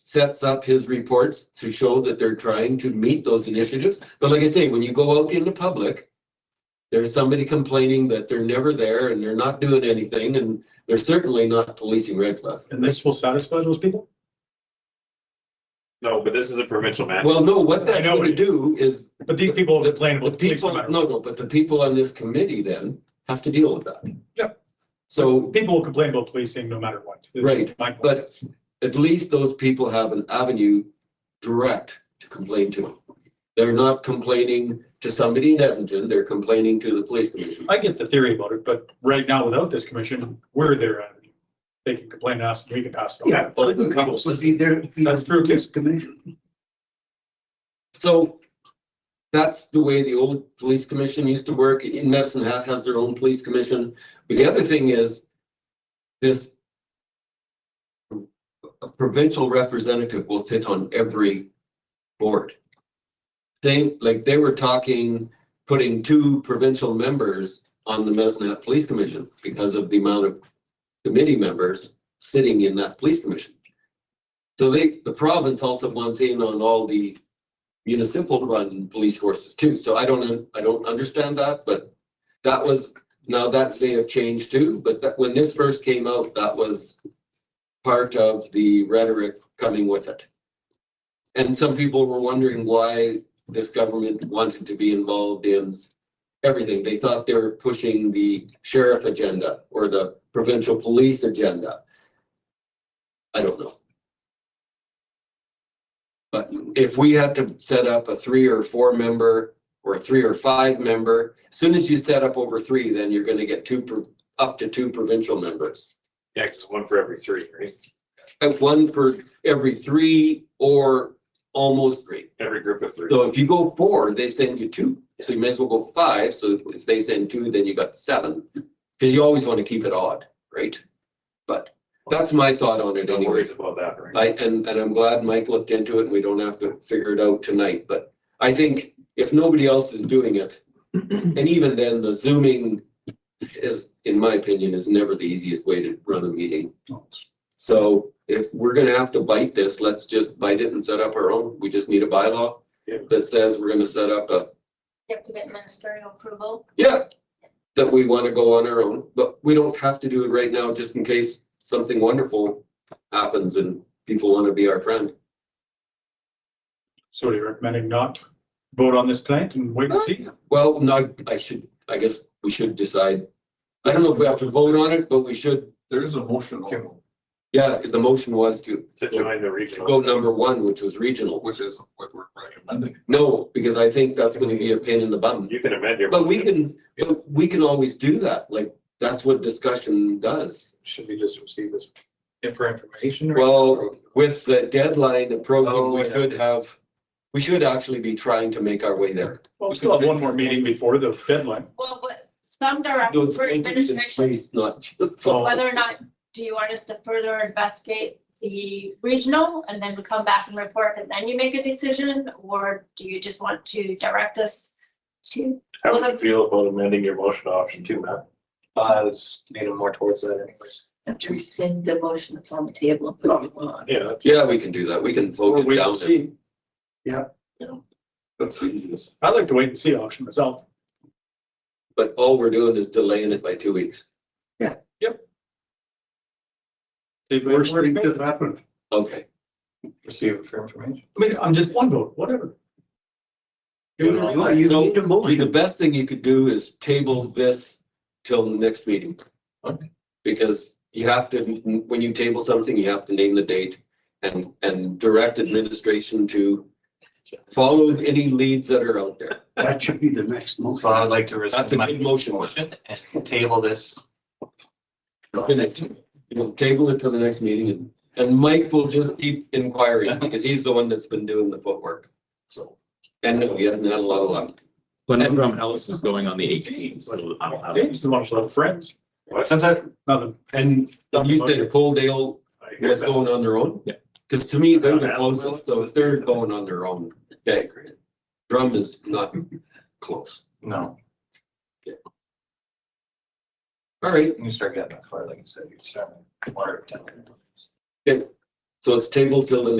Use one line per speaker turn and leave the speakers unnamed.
sets up his reports to show that they're trying to meet those initiatives. But like I say, when you go out in the public, there's somebody complaining that they're never there and they're not doing anything and they're certainly not policing Red Cliff.
And this will satisfy those people?
No, but this is a provincial matter.
Well, no, what
I
that's
know
gonna
it is.
do is
But these people will complain
the
about the police no
people,
matter
no, no, but the people on this committee then have to deal with that.
Yep.
So
what. People will complain about policing no matter what. is
Right,
my point.
But at least those people have an avenue direct to complain to. They're not complaining to somebody in Edmonton, they're complaining to the police commission.
I get the theory about it, but right now, without this commission, we're their avenue. They can complain to us, and we can pass it on.
Yeah, but the couple, so see, there.
That's true, too.
Commission.
So that's the way the old police commission used to work. In Medicine Hat has their own police commission. But the other thing is this a provincial representative will sit on every board. They, like, they were talking, putting two provincial members on the Medicine Hat Police Commission because of the amount of committee members sitting in that police commission. So they, the province also wants in on all the municipal run police forces too. So I don't, I don't understand that, but that was, now that may have changed too, but that, when this first came out, that was part of the rhetoric coming with it. And some people were wondering why this government wanted to be involved in everything. They thought they were pushing the sheriff agenda or the provincial police agenda. I don't know. But if we had to set up a three or four member or a three or five member, as soon as you set up over three, then you're gonna get two, pro- up to two provincial members.
Yeah, because one for every three, right?
Have one for every three or almost three.
Every group of three.
So if you go four, they send you two. So you may as well go five. So if they send two, then you got seven. Cause you always want to keep it odd, right? But that's my thought on it
No
anyway.
worries about that, right?
I, and, and I'm glad Mike looked into it and we don't have to figure it out tonight, but I think if nobody else is doing it, and even then, the zooming is, in my opinion, is never the easiest way to run a meeting. So if we're gonna have to bite this, let's just bite it and set up our own. We just need a bylaw
Yeah.
that says we're gonna set up a,
You have to get ministerial approval.
yeah, that we wanna go on our own, but we don't have to do it right now, just in case something wonderful happens and people wanna be our friend.
So you're recommending not vote on this tonight and wait and see?
Well, no, I should, I guess we should decide. I don't know if we have to vote on it, but we should,
There is a motion, on it,
yeah, 'cause the motion was to
To join the
go
regional.
number one, which was regional.
which is what we're recommending.
No, because I think that's gonna be a pain in the bum.
You can amend your.
But we
motion.
can, but we can always do that, like, that's what discussion does.
Should we just receive this for information?
Well, with the deadline approaching,
Oh,
we
yeah.
should have, we should actually be trying to make our way there.
Well, we still have one more meeting before the deadline.
Well, what, some direct
Those
for
things in
administration,
place, Not just.
Oh.
whether or not, do you want us to further investigate the regional and then we come back and report and then you make a decision? Or do you just want to direct us to?
How would you feel about amending your motion to option two, Matt?
I was leaning more towards that anyways.
have to rescind the motion that's on the table and put a new one on.
Yeah.
Yeah, we can do that. We can
Or
vote it
wait
down.
and see.
That's easiest.
I'd like to wait and see option myself.
But all we're doing is delaying it by two weeks.
See if we have
Worst
more
thing
debate.
could happen.
Okay.
Receive it for information.
I mean, I'm just one vote, whatever.
You know, you
So-
need The best thing you could do is table this till the next meeting.
Okay.
Because you have to, when you table something, you have to name the date and, and direct administration to follow any leads that are out there.
That should be the next motion.
So I'd like to
That's
rescind
a
my
good motion.
motion and table this.
Finish. You know, table it till the next meeting and, and Mike will just keep inquiring because he's the one that's been doing the footwork. So, and we haven't had a lot of luck.
Glenn Ellis is going on the eighteenth, so I don't have.
James is one of our friends,
What?
Since I,
nothing.
And you said Coaldale
I hear
was
that.
going on their own?
Yeah.
Because to me, they're the
Yeah.
closest, so if they're going on their own, okay, great. Drum is not close.
no,
All right,
you start getting that far, like you said, you start. with one or ten.
so it's tabled till the